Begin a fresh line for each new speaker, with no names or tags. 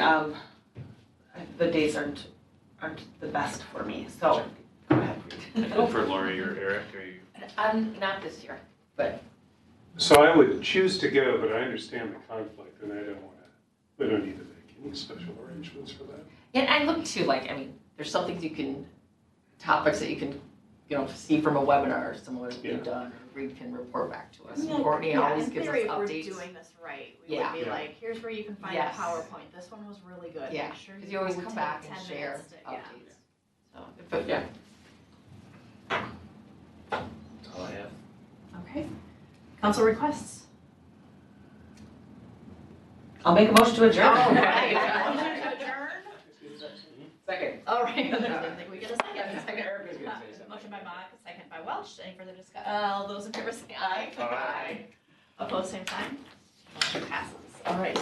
um, the days aren't, aren't the best for me, so go ahead.
Go for Lori or Eric or you.
I'm, Um, not this year.
So I would choose to go, but I understand the conflict and I don't want to, we don't need to make any special arrangements for that.
And I look too, like, I mean, there's some things you can, topics that you can, you know, see from a webinar, or someone has
Yeah.
been done, or Reed can report back to us.
I mean, like,
Courtney
yeah,
always
in
gives us
theory,
updates.
If we're doing this right, we
Yeah.
would be
Yeah.
like, here's where you can find
Yes.
the PowerPoint. This one was really good.
Yeah,
Make sure
Because you always come
take
back and
10
share
minutes to-
updates.
yeah.
So, but yeah,
That's all I have.
Okay. Council requests.
I'll make a motion to adjourn.
Oh, right.
Motion to adjourn.
second.
All right, I didn't think we get a
Yeah,
second.
second, Eric was gonna say
Uh,
something.
Motion by Mock, second by Welch. Any further discuss, all those in favor say aye.
Aye.
Opposed, same sign. Motion passes. All right.